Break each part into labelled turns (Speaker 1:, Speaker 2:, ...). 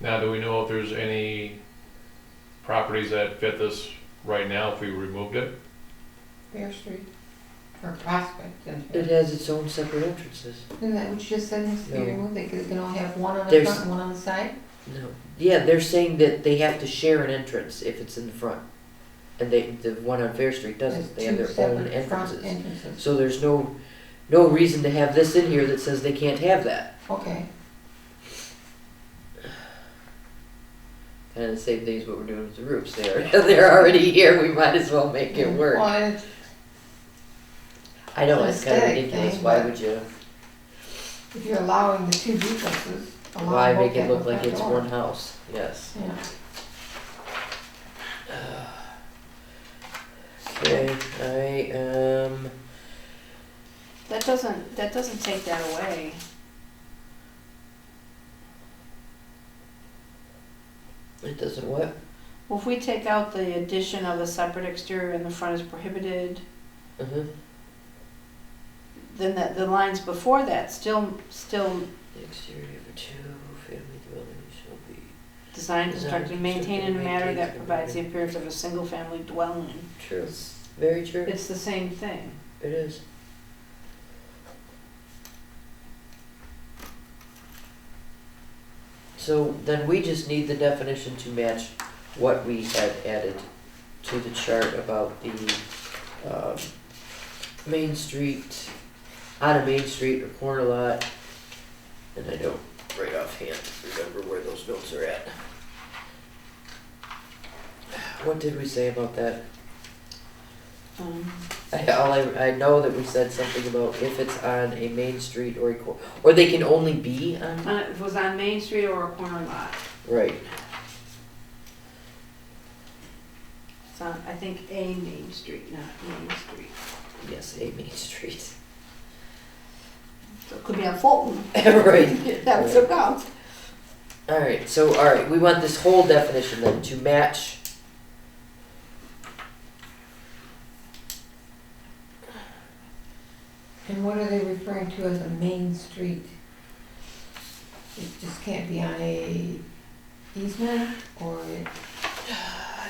Speaker 1: Now, do we know if there's any properties that fit this right now if we removed it?
Speaker 2: Fair Street, or Prospect, and
Speaker 3: It has its own separate entrances.
Speaker 2: Isn't that what you just said, Mr.
Speaker 3: No.
Speaker 2: Beardmore? They could, they can only have one on the
Speaker 3: There's-
Speaker 2: front and one on the side?
Speaker 3: No. Yeah, they're saying that they have to share an entrance if it's in the front. And they, the one on Fair Street
Speaker 2: There's
Speaker 3: doesn't, they have
Speaker 2: two
Speaker 3: their own
Speaker 2: separate front
Speaker 3: entrances. So there's no, no reason to have this in here that says they can't have that.
Speaker 2: Okay,
Speaker 3: Kind of the same thing as what we're doing with the roofs, they are, they're already here, we might as well make it work.
Speaker 2: well, it's,
Speaker 3: I know, it's kind of
Speaker 2: Aesthetic
Speaker 3: ridiculous,
Speaker 2: thing,
Speaker 3: why
Speaker 2: but-
Speaker 3: would you,
Speaker 2: if you're allowing the two duplexes, allow
Speaker 3: why
Speaker 2: both
Speaker 3: make
Speaker 2: to
Speaker 3: it
Speaker 2: have
Speaker 3: look
Speaker 2: a
Speaker 3: like
Speaker 2: front
Speaker 3: it's
Speaker 2: door.
Speaker 3: one house? Yes.
Speaker 2: Yeah,
Speaker 3: Okay, I, um,
Speaker 4: That doesn't, that doesn't take that away.
Speaker 3: it doesn't what?
Speaker 4: Well, if we take out the addition of a separate exterior and the front is prohibited,
Speaker 3: Uh-huh.
Speaker 4: then that, the lines before that still, still
Speaker 3: The exterior of a two-family dwelling shall be
Speaker 4: designed, constructed,
Speaker 3: Designed,
Speaker 4: maintained in a
Speaker 3: constructed,
Speaker 4: manner that
Speaker 3: maintained,
Speaker 4: provides the appearance of a single-family dwelling.
Speaker 3: True. Very true. It
Speaker 4: It's the same thing.
Speaker 3: is. So then we just need the definition to match what we had added to the chart about the, um, Main Street, on a Main Street or corner lot. And I don't right offhand remember where those notes are at. What did we say about that?
Speaker 4: Um,
Speaker 3: I, all I, I know that we said something about if it's on a main street or a cor- or they can only be on
Speaker 4: on- If Uh, it was on Main Street or a corner lot,
Speaker 3: right.
Speaker 4: it's on, I think, a Main Street, not Main Street.
Speaker 3: Yes, a main street.
Speaker 4: So it could be on Fulton.
Speaker 3: right.
Speaker 4: That would still count.
Speaker 3: All right. So all right, we want this whole definition then to match.
Speaker 2: and what are they referring to as a main street? It just can't be on a easement, or it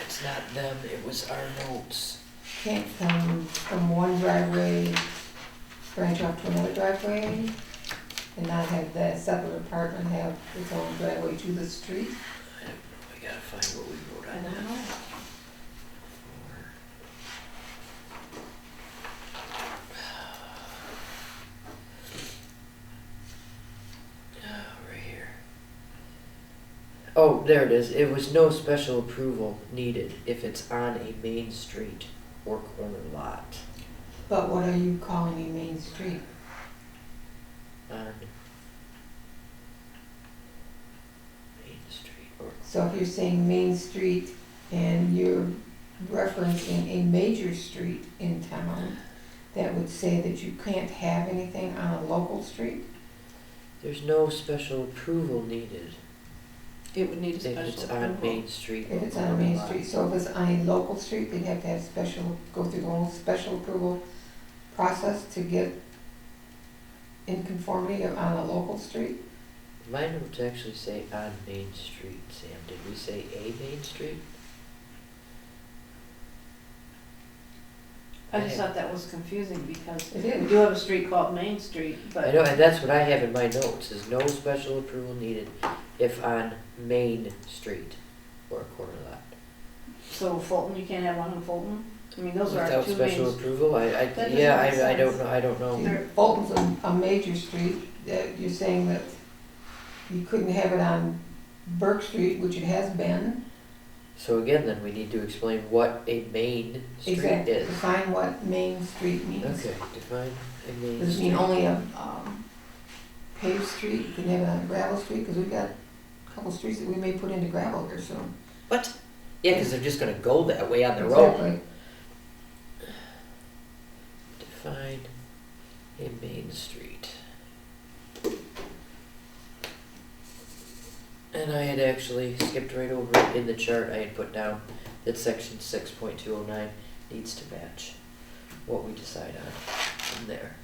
Speaker 3: It's not them. It was our notes.
Speaker 2: can't come from one driveway, branch off to another driveway, and not have that separate apartment have its own driveway to the street?
Speaker 3: I gotta find what we wrote
Speaker 2: I
Speaker 3: on
Speaker 2: don't
Speaker 3: that.
Speaker 2: know.
Speaker 3: Oh, right here. Oh, there it is. It was no special approval needed if it's on a main street or corner lot.
Speaker 2: But what are you calling a main street?
Speaker 3: on Main Street or
Speaker 2: So if you're saying main street and you're referencing a major street in town, that would say that you can't have anything on a local street?
Speaker 3: there's no special approval needed
Speaker 4: It would need a
Speaker 3: if
Speaker 4: special
Speaker 3: it's on
Speaker 4: approval.
Speaker 3: Main Street.
Speaker 2: If
Speaker 3: or
Speaker 2: it's on a main
Speaker 3: lot.
Speaker 2: street, so if it's on a local street, they'd have to have special, go through the whole special approval process to get in conformity of- on a local street?
Speaker 3: My notes actually say on Main Street, Sam. Did we say a Main Street?
Speaker 4: I just thought that was confusing because
Speaker 2: It
Speaker 4: we
Speaker 2: is.
Speaker 4: do have a street called Main Street,
Speaker 3: I
Speaker 4: but
Speaker 3: know, and that's what I have in my notes, is no special approval needed if on Main Street or corner lot.
Speaker 4: so Fulton, you can't have one in Fulton? I mean, those are our
Speaker 3: Without
Speaker 4: two
Speaker 3: special
Speaker 4: main.
Speaker 3: approval, I, I,
Speaker 4: doesn't
Speaker 3: yeah,
Speaker 4: make
Speaker 3: I, I don't
Speaker 4: sense.
Speaker 3: know, I don't know.
Speaker 4: There-
Speaker 2: Fulton's a, a major street, that you're saying that you couldn't have it on Burke Street, which it has been.
Speaker 3: So again, then we need to explain what a Main Street is.
Speaker 2: Exactly. Define what main street means.
Speaker 3: Okay, define a main
Speaker 2: Does it mean
Speaker 3: street.
Speaker 2: only a, um, paved street, you can have it on gravel street, cause we've got a couple streets that we may put into gravel here soon.
Speaker 3: Yeah, because they're just gonna go that way on their own.
Speaker 2: Exactly.
Speaker 3: Define a main street. And I had actually skipped right over it in the chart I had put down that section six point two oh nine needs to match what we decide on from there.